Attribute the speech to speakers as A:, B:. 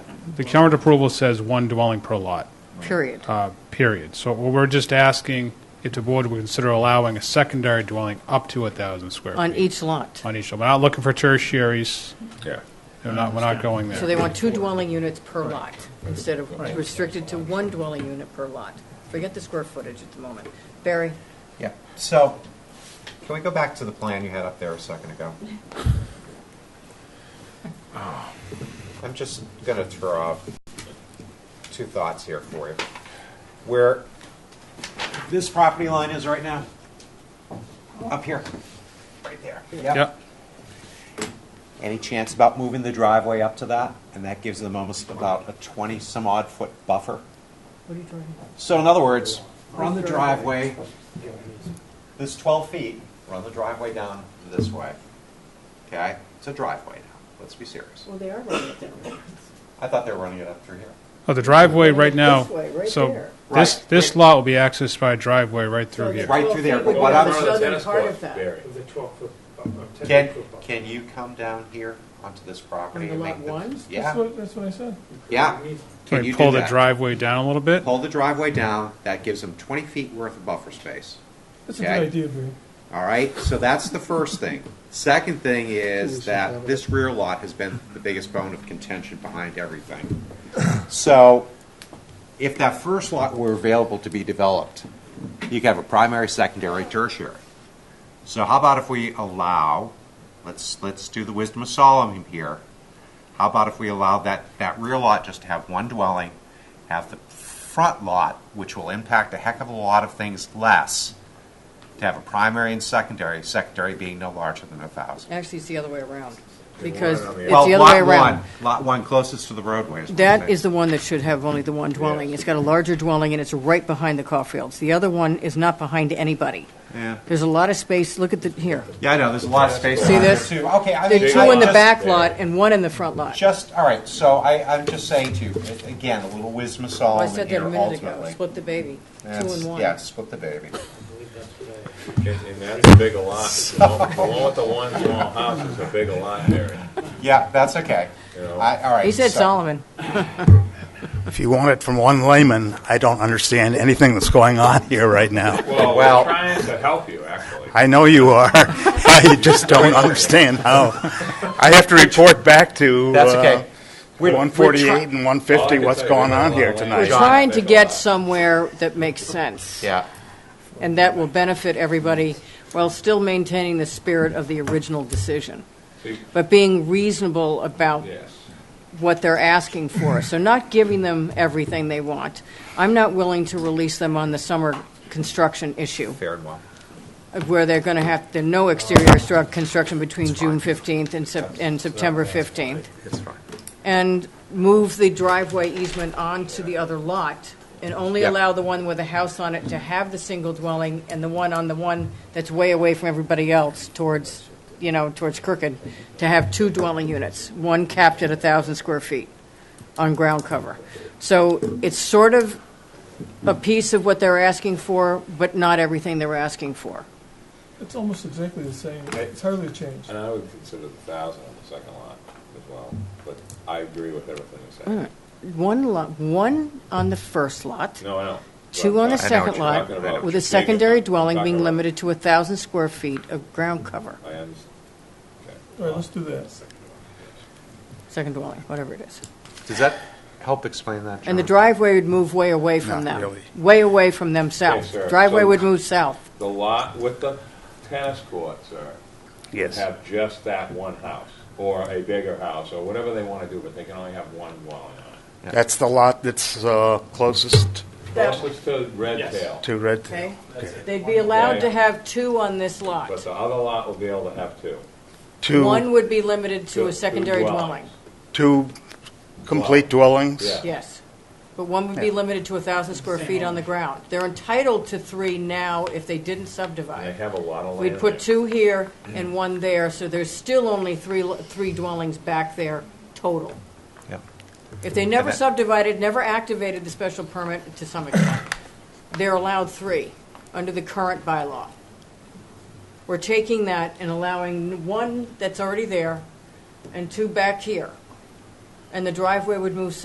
A: the current approval says one dwelling per lot,
B: period.
A: uh, period. So what we're just asking if the board would consider allowing a secondary dwelling up to 1,000 square feet.
B: On each lot.
A: On each, we're not looking for tertiaries,
C: Yeah.
A: we're not, we're not going
B: So they
A: there.
B: want two dwelling units per lot, instead of restricted to one dwelling unit per lot. Forget the square footage at the moment. Barry,
D: Yeah, so, can we go back to the plan you had up there a second ago? I'm just gonna throw out two thoughts here for you. Where this property line is right now, up here, right there.
A: Yeah,
D: Any chance about moving the driveway up to that? And that gives them almost about a 20-some-odd foot buffer.
B: what are you talking about?
D: So in other words, run the driveway, this 12 feet, run the driveway down this way. Okay? It's a driveway now. Let's be serious.
B: Well, they are running it down.
D: I thought they were running it up through here.
A: oh, the driveway right
B: This
A: now,
B: way, right
A: so
B: there.
A: this,
D: Right.
A: this lot will be accessed by a driveway right through here.
D: Right through there, but what I'm-
B: The southern
C: Tennis
B: part
C: court,
B: of that.
C: Barry.
E: With a uh, 12-foot, a
D: Can,
E: 10-foot buffer.
D: can you come down here onto this property?
B: On the
D: and
B: lot
D: make the-
B: one?
F: That's
D: Yeah,
F: what, that's what I said.
D: yeah.
A: Can
D: Can
A: we
D: you
A: pull
D: do
A: the
D: that?
A: driveway down a little bit?
D: Pull the driveway down, that gives them 20 feet worth of buffer space.
F: That's a
D: Okay.
F: good idea, Bree.
D: All right, so that's the first thing. Second thing is that this rear lot has been the biggest bone of contention behind everything. So if that first lot were available to be developed, you could have a primary, secondary, tertiary. So how about if we allow, let's, let's do the wisdom of Solomon here. How about if we allow that, that rear lot just to have one dwelling, have the front lot, which will impact a heck of a lot of things less, to have a primary and secondary, secondary being no larger than a thousand.
B: Actually, it's the other way around, because it's the
D: Well,
B: other way
D: lot
B: around.
D: one, lot one closest to the roadway. what I'm
B: That
D: saying.
B: is the one that should have only the one dwelling. It's got a larger dwelling, and it's right behind the Caulfields. The other one is not behind anybody.
D: Yeah,
B: There's a lot of space, look at the, here.
D: yeah, I know, there's a lot of space.
B: See
D: around there,
B: this?
D: too. Okay, I
B: The
D: mean.
B: two
D: I
B: in the
D: just-
B: back lot and one in the front lot.
D: Just, all right, so I, I'm just saying to you, a- again, a little wisdom of
B: Well, I
D: Solomon
B: said that
D: here
B: a minute ago,
D: Oh, ultimately.
B: split the baby, two
D: That's-
B: and one.
D: Yeah, split the baby.
C: And and that's a big a lot. The one- the one with the one small house is a big a lot, Barry.
D: Yeah, that's okay.
C: You know.
D: I, all right.
B: He said
D: so-
B: Solomon.
G: If you want it from one layman, I don't understand anything that's going on here right now.
C: Well,
D: Well-
C: we're trying to help you, actually.
G: I know you are. I just don't understand how. I have to report back to
D: That's
G: uh,
D: okay.
G: 148
B: we're try-
G: and 150
C: Well, I
G: what's
C: can tell you
G: going
C: we're
G: on
C: not
G: here
C: allowing
B: We're
G: tonight.
C: John,
B: trying to
C: that's a
B: get
C: lot.
B: somewhere that makes sense.
D: Yeah,
B: And that will benefit everybody while still maintaining the spirit of the original decision,
C: See,
B: but being reasonable about
C: Yes.
B: what they're asking for. So not giving them everything they want. I'm not willing to release them on the summer construction issue,
D: fair and well.
B: where they're going to have, there no exterior stru- construction between June 15th and Sep- and September 15th.
D: It's fine.
B: and move the driveway easement onto the other lot, and only
D: Yeah.
B: allow the one with a house on it to have the single dwelling, and the one on the one that's way away from everybody else towards, you know, towards Crooked, to have two dwelling units, one capped at 1,000 square feet on ground cover. So it's sort of a piece of what they're asking for, but not everything they're asking for.
F: It's almost exactly the same. It's hardly a change.
C: And I would consider the thousand on the second lot as well, but I agree with everything you said.
B: One lot, one on the first lot.
C: No, I don't.
B: Mm. Two on the
C: But-
B: second
C: you're
B: lot,
C: talking about.
B: with
C: Big
B: a secondary
C: enough.
B: dwelling
C: Talking
B: being
C: about-
B: limited to 1,000 square feet of ground cover,
C: I understand.
F: All right, let's do that.
B: second dwelling, whatever it is.
D: Does that help explain that,
B: And the
D: John?
B: driveway would move way away from
G: Not
B: them,
G: really.
B: way away from them south.
C: sir.
B: Driveway
C: So-
B: would move south.
C: The lot with the tennis courts are,
G: Yes.
C: have just that one house, or a bigger house, or whatever they want to do, but they can only have one dwelling on it.
G: That's the lot that's uh, closest
B: That-
C: Closest to Red
E: Yes.
C: Tail,
G: to Red Tail.
B: Okay? They'd be allowed to
C: Yeah.
B: have two on this lot.
C: but the other lot will be able to have two.
B: One
G: Two,
B: would be limited to
C: Two-
B: a
C: two
B: secondary dwelling,
C: dwellings.
G: two complete dwellings?
C: Yeah.
B: yes. But one would be limited to 1,000 square feet on the ground. They're entitled to three now if they didn't
C: And they
B: subdivide.
C: have a lot of land.
B: We'd put
C: there.
B: two here and one there, so there's still only three, three dwellings back there total.
D: Yeah.
B: If they never
D: And that-
B: subdivided, never activated the special permit to some extent, they're allowed three under the current bylaw. We're taking that and allowing one that's already there and two back here. And the driveway would move